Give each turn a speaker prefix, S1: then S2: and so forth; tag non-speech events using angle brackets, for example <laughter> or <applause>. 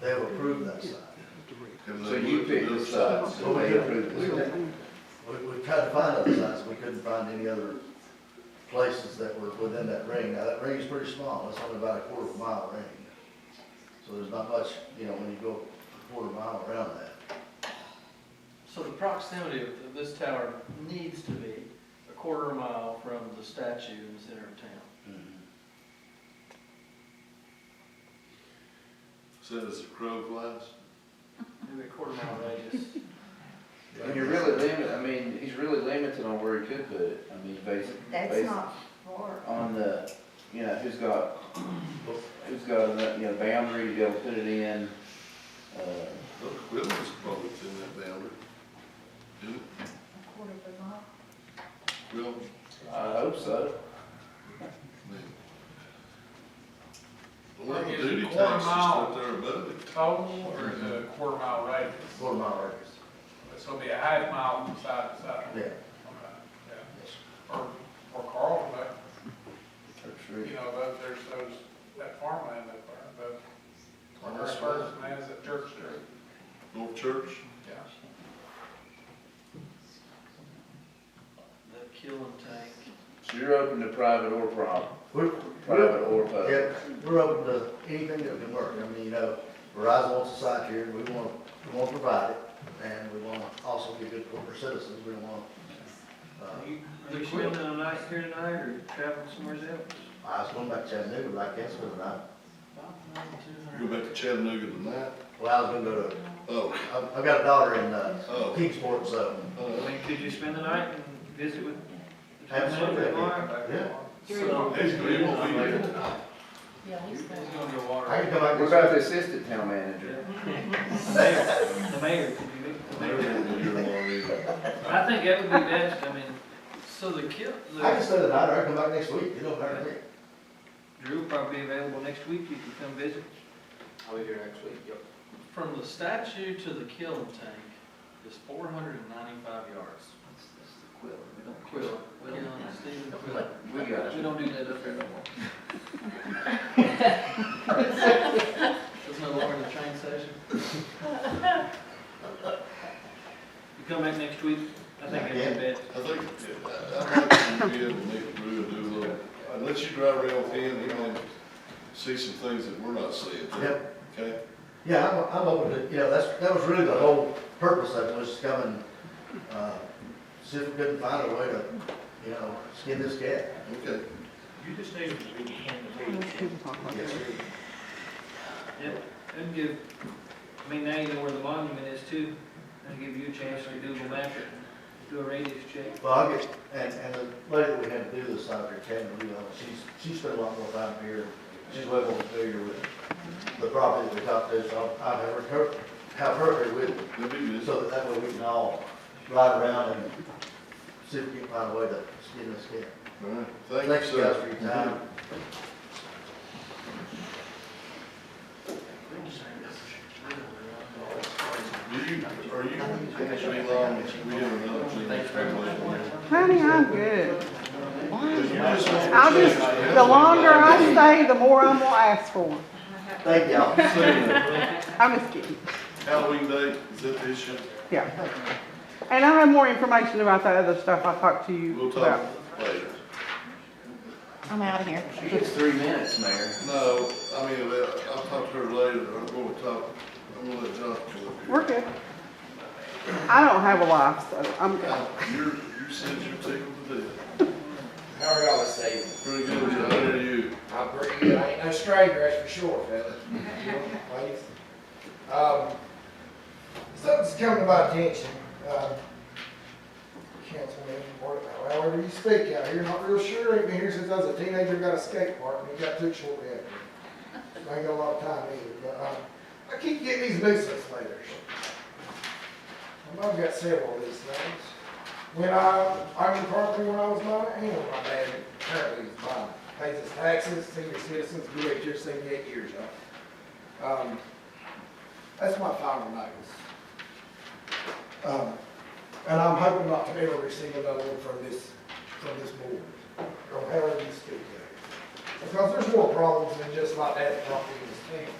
S1: they'll approve that side.
S2: So you pick the sides, Oh, so they approve the sides.
S1: We, we tried to find other sites, we couldn't find any other places that were within that ring. Now, that ring is pretty small, it's only about a quarter of a mile ring. So there's not much, you know, when you go a quarter mile around that.
S3: So the proximity of of this tower needs to be a quarter mile from the statue in the center of town.
S1: Mm-hmm.
S4: Said it's a crow flies.
S3: Maybe a quarter mile radius.
S2: And you're really limited, I mean, he's really limited on where he could put it, I mean, based,
S5: That's
S2: based
S5: not for,
S2: on the, you know, who's got, who's got, enough, you know, boundary to be able to put it in. Uh,
S4: Well, the Quillen's probably in that boundary. Didn't it?
S5: a quarter of a mile.
S4: Quillen,
S2: I hope so.
S4: I mean. A lot of
S6: Is it
S4: duty
S6: a
S4: taxes
S6: quarter mile?
S4: up there above it.
S6: Total or is it a quarter mile radius?
S1: Quarter mile radius,
S6: So it'll be a half mile from side to side.
S1: yeah.
S6: Okay, yeah. Or, or Carl, but,
S2: For sure.
S6: you know, but there's those, that farmland up there, but
S1: On
S6: our
S1: this
S6: first
S1: one,
S6: man is at Church Street,
S4: North Church,
S6: yeah.
S3: The killing tank.
S2: So you're open to private or prob,
S1: We're, we're,
S2: private or public?
S1: yeah, we're open to anything that can work. I mean, you know, Verizon wants a site here, we want, we want to provide it, and we want to also be good corporate citizens, we want, uh,
S3: Are you are you spending a night here tonight or traveling somewhere else?
S1: I was going back to Chattanooga, but I can't spend the night.
S4: go back to Chattanooga tonight.
S1: Well, I was gonna go to,
S4: Oh,
S1: I've, I've got a daughter in, uh,
S4: Oh.
S1: Kingsport, so,
S4: oh,
S3: could you spend the night and visit with?
S1: Absolutely.
S3: Tomorrow?
S1: yeah.
S4: he's, he won't be here
S5: Yeah, he's
S3: He's
S5: got-
S3: gonna go
S1: I
S3: water.
S1: can come back.
S2: What about the assistant town manager?
S3: The mayor- the mayor, could you meet the
S4: Maybe he
S3: mayor?
S4: won't be here tomorrow either.
S3: I think that would be best, I mean, so the kill,
S1: I can stay the night, or I can come back next week, it don't matter to me.
S3: Drew will probably be available next week, you can come visit.
S2: I'll be here next week, yep.
S3: From the statue to the kiln tank is four hundred and ninety-five yards. Quill, Quill, Stephen Quill.
S2: We got
S3: We
S2: it.
S3: don't do that up here no more. <laughs> It's no longer the train <laughs> station. You come back next week, I think that'd be best.
S4: I think, I, I might be able to make Drew do a little, unless you drive around with him, he might see some things that we're not seeing.
S1: Yep,
S4: Okay?
S1: yeah, I'm, I'm open to, you know, that's, that was really the whole purpose of it, was to come and, uh, see if we couldn't find a way to, you know, skin this cat.
S4: Okay.
S7: You just need to be in the meeting.
S1: Yes,
S3: Yep, and give, I mean, now you know where the monument is too, and give you a chance to Google map it, do a radius check.
S1: Well, I'll get, and, and the lady that we had to do this out here, Karen Relo, she's, she spent a lot more time here. She's way more familiar with the property that we talked to, so I'll have her, have her here with me.
S4: That'd be good.
S1: So that that way we can all ride around and see if we can find a way to skin this cat.
S4: All right. Thank you,
S1: Thanks, guys,
S4: sir.
S1: for your time.
S4: Mm-hmm. Do you, are you, actually long, we have another thing that's coming later.
S8: Honey, I'm good.
S4: I'll
S8: I'll just, the longer I stay, the more I'm gonna ask for.
S1: Thank y'all.
S8: I'm just kidding,
S4: Halloween day, is that this year?
S8: yeah. And I have more information about that other stuff I talked to you
S4: We'll
S8: about.
S4: talk later.
S5: I'm out of here.
S2: She gets three minutes, Mayor.
S4: No, I mean, uh, I'll talk to her later, I'm gonna talk, I'm gonna let John talk
S8: We're good. I don't have a life, so I'm good.
S4: to you. You're, you said you're tickled to death.
S9: How are y'all this evening?
S4: Pretty good, John, how are you?
S9: I'm pretty good. I ain't no stranger, that's for sure, fella. You know, ladies. Um, something's come to my attention. Um, Councilman, or however you speak out here, not real sure. Ain't been here since I was a teenager, got a skate park, and it got took shortly after. I ain't got a lot of time either, but, um, I keep getting these nuisance letters. And I've got several of these things. When I, I was partly when I was nine, and my dad apparently is blind, pays his taxes, senior citizens, we wait here seventy-eight years, huh? Um, that's my final notice. Um, and I'm hoping not to ever receive another one from this, from this board, or however you speak there. Because there's more problems than just my dad's property in this town.